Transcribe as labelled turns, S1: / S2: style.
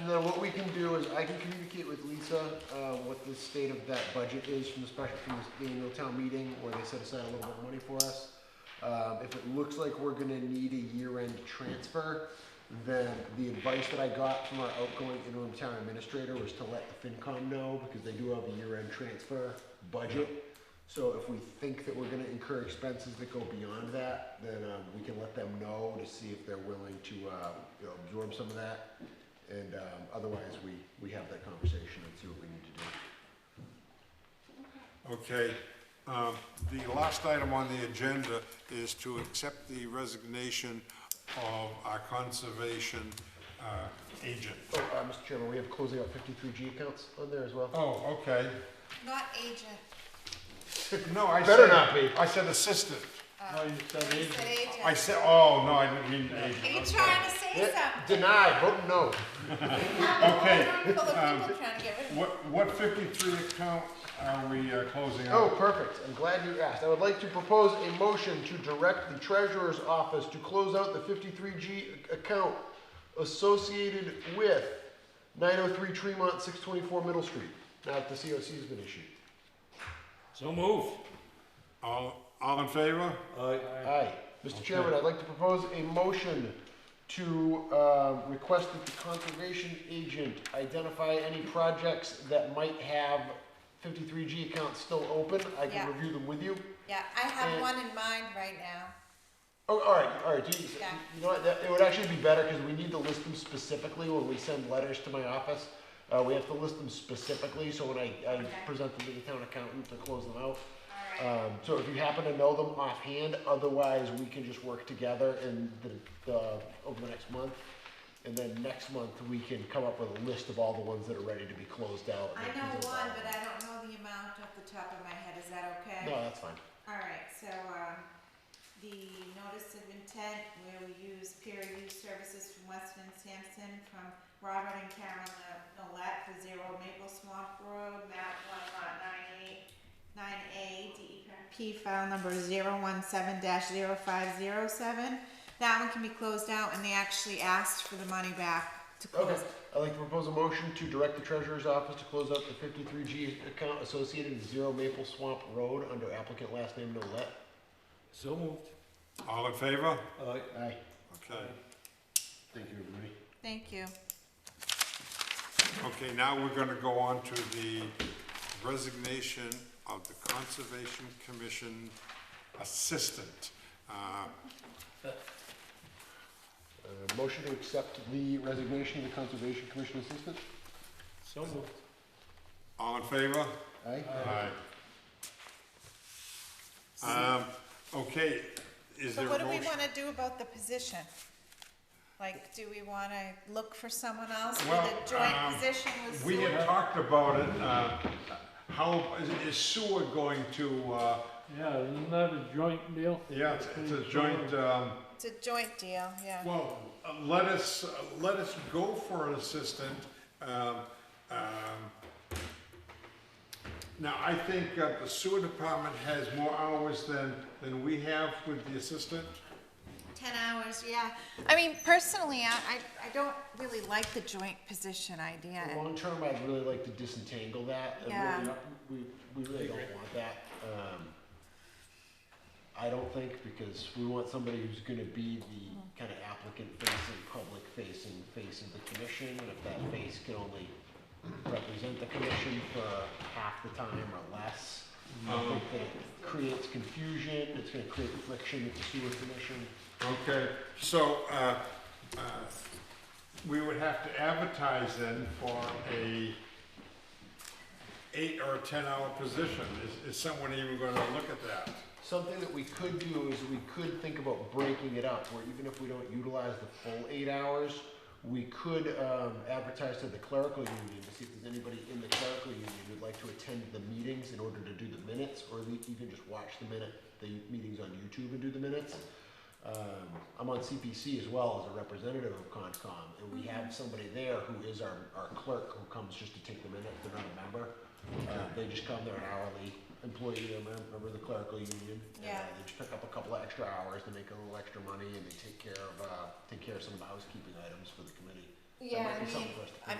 S1: And then what we can do is I can communicate with Lisa, uh, what the state of that budget is from the special, from the annual town meeting, where they set aside a little bit of money for us. Um, if it looks like we're gonna need a year-end transfer, then the advice that I got from our outgoing interim town administrator was to let the FinCom know, because they do have a year-end transfer budget. So if we think that we're gonna incur expenses that go beyond that, then, um, we can let them know to see if they're willing to, uh, you know, absorb some of that. And, um, otherwise, we, we have that conversation and see what we need to do.
S2: Okay, um, the last item on the agenda is to accept the resignation of our conservation uh, agent.
S1: Oh, uh, Mr. Chairman, we have closing out fifty-three G accounts on there as well.
S2: Oh, okay.
S3: Not agent,
S2: No, I said.
S1: Better not be.
S2: I said assistant.
S4: No, you said
S3: he
S4: agent.
S3: said
S2: I
S3: agent.
S2: said, oh, no, I didn't mean agent.
S3: Are you trying to say
S1: Yeah,
S3: something?
S1: Deny, vote no.
S2: Okay, Um,
S3: Full of people trying to get rid of
S2: What, what fifty-three account are we uh, closing
S1: Oh,
S2: out?
S1: perfect. I'm glad you asked. I would like to propose a motion to direct the treasurer's office to close out the 53G account associated with 903 Tremont, 624 Middle Street, now that the COC has been issued.
S4: So move.
S2: All, all in favor?
S1: Aye. Mr. Chairman, I'd like to propose a motion to uh, request that the conservation agent identify any projects that might have 53G accounts still open. I
S3: Yeah.
S1: can review them with you.
S3: Yeah, I have
S2: uh,
S1: And-
S3: one in mind right now.
S1: Oh, all right, all right. Do you,
S3: Yeah.
S1: you know what? That, it would actually be better because we need to list them specifically when we send letters to my office. Uh, we have to list them specifically, so when I, I present them to the town accountant to close them out.
S2: uh,
S1: Um, so if you happen to know them offhand, otherwise we can just work together and the, the over the next month. And then next month we can come up with a list of all the ones that are ready to be closed out.
S3: I know one, but I don't know the amount off the top of my head, is that okay?
S1: No, that's fine.
S3: Alright, so, um, the notice of intent where we use peer review services from Weston and Sampson from Robert and Karen Nolet for Zero Maple Swamp Road, map one lot nine eight, nine A, DEP file number zero one seven dash zero five zero seven. That one can be closed out and they actually asked for the money back to
S1: Okay,
S3: close.
S1: I'd like to propose a motion to direct the treasurer's office to close out the fifty-three G account associated with Zero Maple Swamp Road under applicant last name Nolet.
S4: So moved.
S2: All in favor?
S4: Aye.
S1: Aye.
S2: Okay,
S1: Thank you, everybody.
S3: Thank you.
S2: okay, now we're gonna go on to the resignation of the Conservation Commission Assistant. Uh,
S1: Uh, motion to accept the resignation of the Conservation Commission Assistant.
S4: So moved.
S2: All in favor?
S1: Aye.
S2: Aye. Um, okay, is
S3: So
S2: there
S3: what
S2: a
S3: do we
S2: motion?
S3: wanna do about the position? Like, do we wanna look for someone else for
S2: Well,
S3: the joint
S2: um,
S3: position with
S2: We
S3: sewer?
S2: had talked about it, uh, how, is- is sewer going to, uh,
S4: Yeah, isn't that a joint deal?
S2: yeah, it's- it's a joint, um,
S3: It's a joint deal, yeah.
S2: Well, uh, let us, uh, let us go for an assistant. um, um, Now, I think uh, the sewer department has more hours than, than we have with the assistant.
S3: Ten hours, yeah. I mean, personally, I, I, I don't really like the joint position idea.
S1: Long term, I'd really like to disentangle that. and
S3: Yeah.
S1: We, we we really don't want that. Um, I don't think, because we want somebody who's gonna be the kind of applicant facing, public facing, face of the commission. And if that face can only represent the commission for half the time or less, I think that it creates confusion, it's gonna create friction with the sewer commission.
S2: Okay, so, uh, uh, we would have to advertise then for a eight or a ten-hour position. Is, is someone even gonna look at that?
S1: Something that we could do is we could think about breaking it up, where even if we don't utilize the full eight hours, we could um, advertise to the clerical union to see if there's anybody in the clerical union who'd like to attend the meetings in order to do the minutes, or the- even just watch the minute, the meetings on YouTube and do the minutes. Um, I'm on CPC as well as a representative of Concom, and we have somebody there who is our, our clerk who comes just to take the minute, they're not a member. Uh, They just come, they're an hourly employee, they're a mem- member of the clerical union. and, uh,
S3: Yeah.
S1: They just pick up a couple of extra hours, they make a little extra money, and they take care of, uh, take care of some of the housekeeping items for the committee. That
S3: Yeah,
S1: might
S3: I
S1: be something
S3: mean,
S1: for us to
S3: I